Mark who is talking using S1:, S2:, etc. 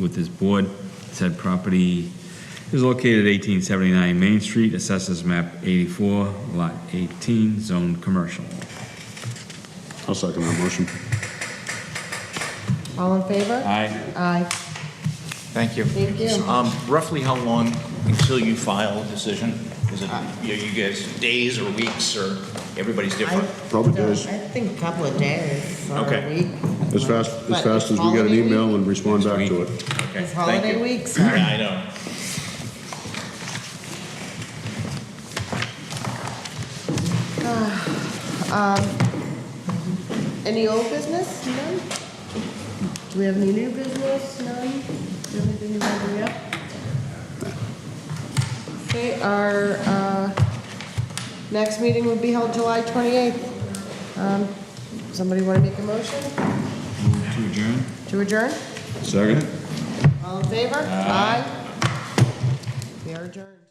S1: with this board. Said property is located at 1879 Main Street, assesses map 84, lot 18, zone commercial.
S2: I'll second that motion.
S3: All in favor?
S1: Aye.
S3: Aye.
S4: Thank you.
S3: Thank you.
S4: Um, Roughly how long until you file a decision? Is it,
S3: Uh,
S4: you you guys, days or weeks, or everybody's different?
S2: Probably
S5: don't-
S2: does.
S5: I think a couple of days or a
S4: Okay.
S5: week.
S2: As fast, as
S5: But
S2: fast as we get an
S5: holiday
S2: email and respond back to it.
S4: Okay,
S5: It's
S4: thank
S5: holiday
S4: you.
S5: week, so-
S4: Yeah, I know.
S3: Any old business? None? Do we have any new business? None? Do you have anything you want to bring up? Okay, our, uh, next meeting would be held July 28th. Um, Somebody want to make a motion
S1: Move to adjourn?
S3: to adjourn?
S2: Second?
S3: All in favor? Aye. We are adjourned.